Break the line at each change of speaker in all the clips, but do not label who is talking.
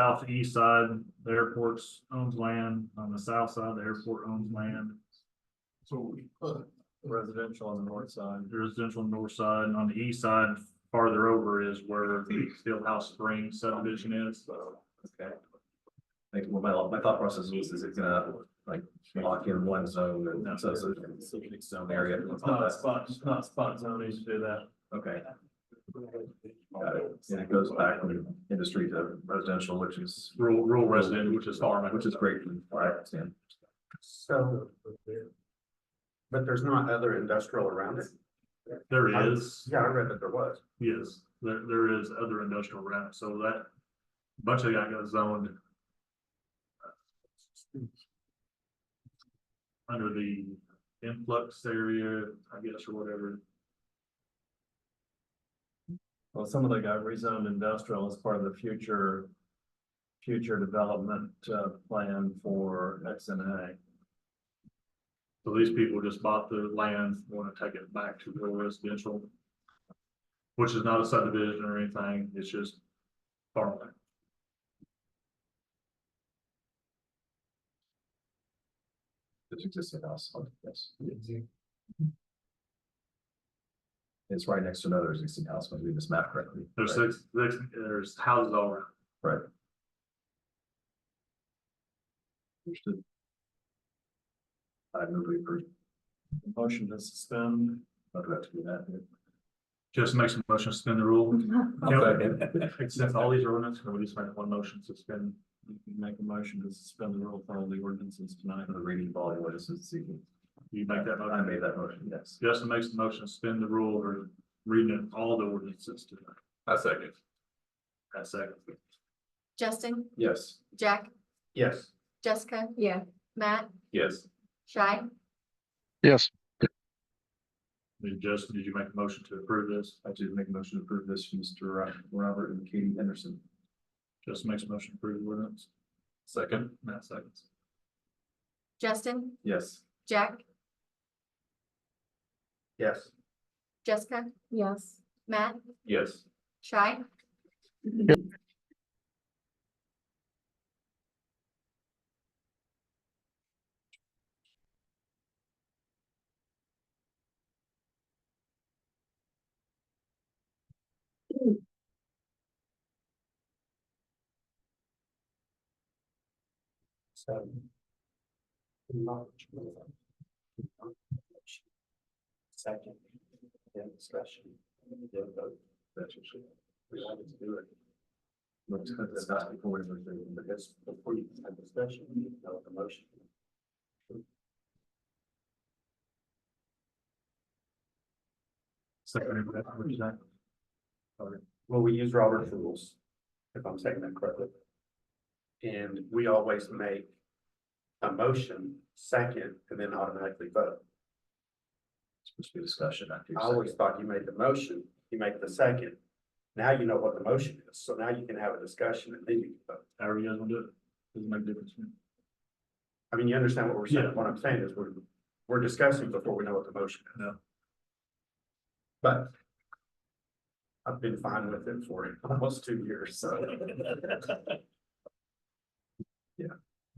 southeast side, the airport's owns land, on the south side, the airport owns land.
So residential on the north side.
residential on the north side, and on the east side, farther over is where the Fieldhouse Springs subdivision is.
Okay. Like, well, my, my thought process was, is it gonna like lock in one zone and so, so, so it's zone area? and all that?
spot, it's not spot zoning to do that.
Okay. Got it. And it goes back from industry to residential, which is,
Rural, rural resident, which is farming.
which is great, from what I understand.
So. But there's not other industrial around it?
There is,
Yeah, I read that there was.
yes, there, there is other industrial around, so that bunch of that got zoned. uh, Under the influx area, I guess, or whatever.
Well, some of the got rezoned industrial as part of the future, future development, uh, plan for X and A.
So these people just bought the land, wanna take it back to real residential. Which is not a subdivision or anything, it's just farmland.
It's existing house, Oh, yes. Mm-hmm. It's right next to another existing house, when we this map correctly.
There's
right?
six, six, there's houses all around.
Right. Understood. I move we approve. Motion to suspend. I'd have to do that.
Just make some motion, to suspend the rule.
Okay.
Since all these are ordinance, can we just make one motion, to suspend?
Make a motion to suspend the rule, follow the ordinances tonight. The reading of all the ordinances, see.
You make that
I
motion.
made that motion, yes.
Justin makes the motion, to suspend the rule, or reading all the ordinances tonight.
I second.
That's second.
Justin,
Yes.
Jack,
Yes.
Jessica. Yeah. Matt,
Yes.
Shy,
Yes,
Did Justin, did you make a motion to approve this?
I do make a motion to approve this, from Mr. Ro- Robert and Katie Henderson.
Justin makes a motion to approve the ordinance.
Second.
Matt seconds.
Justin,
Yes.
Jack,
Yes.
Jessica. Yes. Matt,
Yes.
Shy,
Second. Then discussion. Then vote.
That's what she-
We wanted to do it.
Let's cut this out before we move to the
But that's before you have discussion, you need to know the motion.
Second, what you say?
Well, we use Robert's rules, if I'm saying that correctly. And we always make a motion second and then automatically vote.
supposed to be discussion after. your
I always
second.
thought you made the motion, you make the second. Now you know what the motion is, so now you can have a discussion and then you can vote.
However you guys want to do it, doesn't make a difference. to me.
I mean, you understand what we're saying,
Yeah.
what I'm saying is we're, we're discussing before we know what the motion is.
Yeah.
But. I've been fine with it for almost two years, so.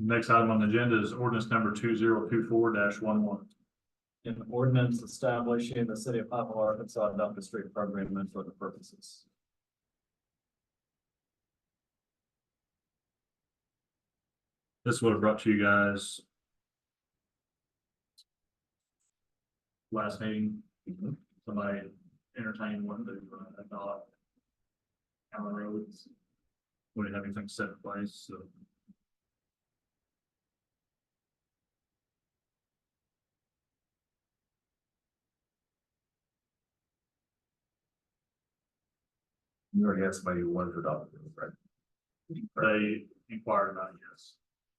Next item on the agenda is ordinance number two zero two four dash one one.
An ordinance establishing the city of Poplar, Arkansas adopted street program and for the purposes.
This would have brought to you guys. Last meeting, somebody entertained one, but uh, I thought. Allen Roads. We didn't have anything set in place, so.
You already had somebody who wanted to adopt it, right?
They inquired about it, yes.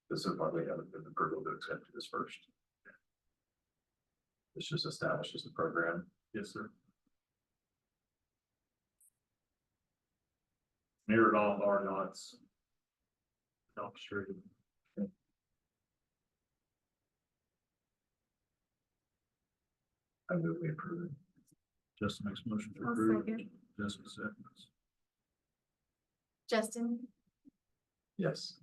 This is why we haven't been approval to accept this first. This just establishes the program.
Yes, sir. Mirrored all of our knots. Elm Street.
I move we approve it.
Justin makes a motion to
I'll
approve.
second.
Justin seconds.
Justin,
Yes.